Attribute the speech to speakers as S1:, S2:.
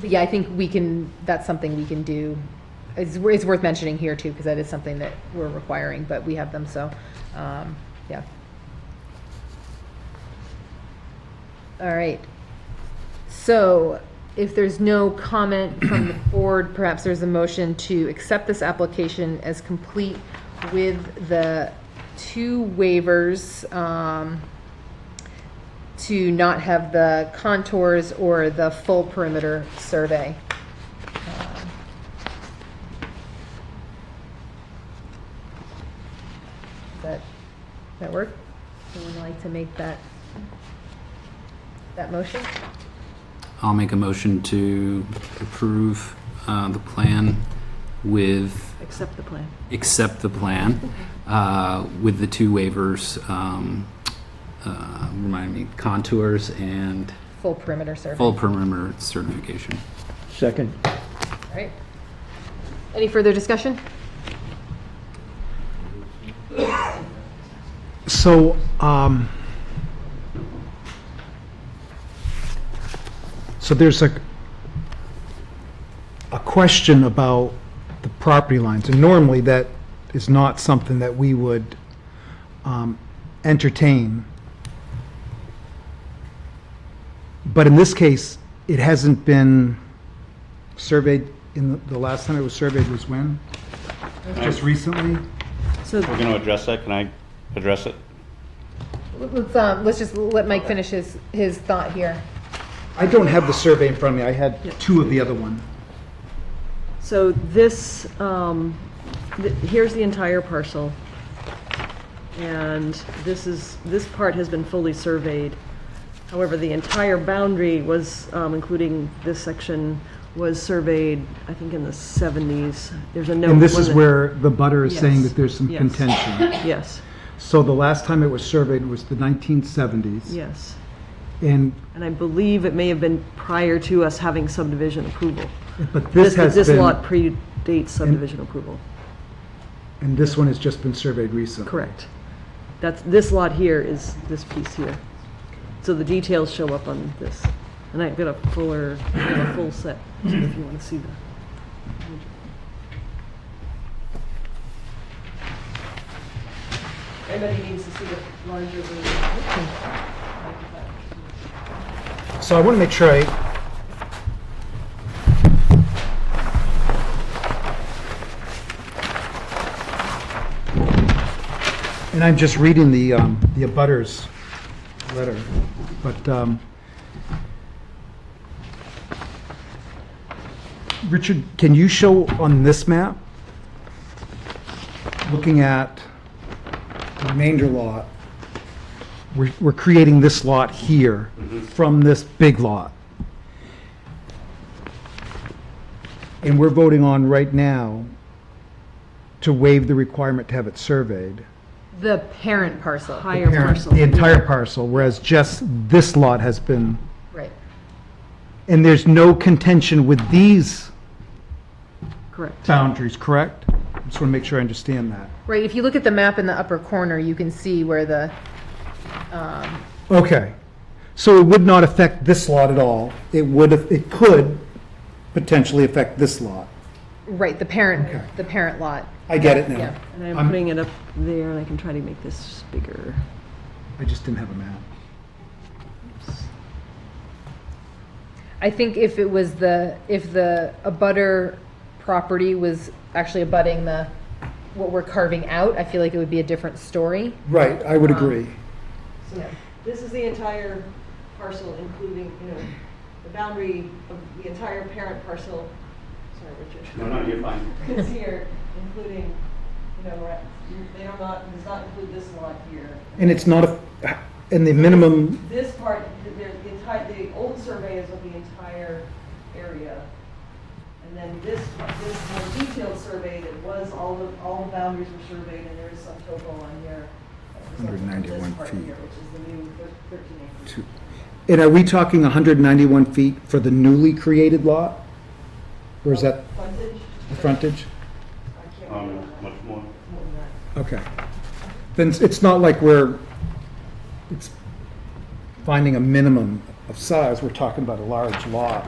S1: But yeah, I think we can, that's something we can do. It's, it's worth mentioning here too, because that is something that we're requiring, but we have them, so, um, yeah. All right. So if there's no comment from the board, perhaps there's a motion to accept this application as complete with the two waivers, um, to not have the contours or the full perimeter survey. Um, That, that work? Someone like to make that, that motion?
S2: I'll make a motion to approve uh, the plan with,
S3: Accept the plan.
S2: accept the plan uh, with the two waivers, um, uh, remind me, contours and
S1: Full perimeter survey.
S2: full perimeter certification.
S4: Second.
S1: All right. Any further discussion?
S5: So, um, so there's a, a question about the property lines, and normally that is not something that we would, um, entertain. But in this case, it hasn't been surveyed, in, the- the last time it was surveyed was when? Just recently?
S3: So
S6: We're going to address that, can I address it?
S1: Let's, um, let's just let Mike finish his, his thought here.
S5: I don't have the survey in front of me, I had two of the other one.
S3: So this, um, th- here's the entire parcel. And this is, this part has been fully surveyed. However, the entire boundary was, um, including this section, was surveyed, I think, in the 70s. There's a note.
S5: And this is
S3: wasn't-
S5: where the butter is saying
S3: Yes.
S5: that there's some
S3: Yes.
S5: contention.
S3: Yes,
S5: So the last time it was surveyed was the 1970s.
S3: yes.
S5: And,
S3: And I believe it may have been prior to us having subdivision approval.
S5: but this has
S3: This lot
S5: been,
S3: predates subdivision approval.
S5: and this one has just been surveyed recently.
S3: Correct. That's, this lot here is this piece here. So the details show up on this. And I've got a fuller, I've got a full set, so if you want to see that. Everybody needs to see the larger
S5: So I want to make sure I... And I'm just reading the, um, the abutters letter, but, um, Richard, can you show on this map, looking at the remainder lot, we're, we're creating this lot here from this big lot. And we're voting on right now to waive the requirement to have it surveyed.
S1: The parent parcel.
S3: Higher parcel.
S5: The entire parcel, whereas just this lot has been,
S1: Right.
S5: and there's no contention with these
S3: Correct.
S5: boundaries, correct? Just want to make sure I understand that.
S1: Right, if you look at the map in the upper corner, you can see where the, um,
S5: Okay. So it would not affect this lot at all. It would, it could potentially affect this lot.
S1: right, the
S5: Okay.
S1: parent, the parent lot.
S5: I get it
S1: Yeah.
S5: now.
S3: And I'm
S5: I'm-
S3: putting it up there, and I can try to make this bigger.
S5: I just didn't have a map.
S1: I think if it was the, if the abutter property was actually abutting the, what we're carving out, I feel like it would be a different story.
S5: Right, I would agree.
S1: Yeah.
S3: This is the entire parcel, including, you know, the boundary of the entire parent parcel, sorry, Richard.
S6: you're fine.
S3: It's here, including, you know, right- they do not, does not include this lot here.
S5: And it's not, a and the minimum,
S3: This part, the, the entire, the old survey is of the entire area. And then this, this more detailed survey that was, all the, all the boundaries were surveyed, and there is some topo on here. that was up to
S5: 191
S3: This part
S5: feet.
S3: here, which is the new thir- thirteen acres.
S5: and are we talking 191 feet for the newly created lot? Or is that
S3: Frontage,
S5: the frontage?
S3: I can't remember
S6: Um, much more.
S3: more than that.
S5: Okay. Then it's- it's not like we're, it's finding a minimum of size, we're talking about a large lot.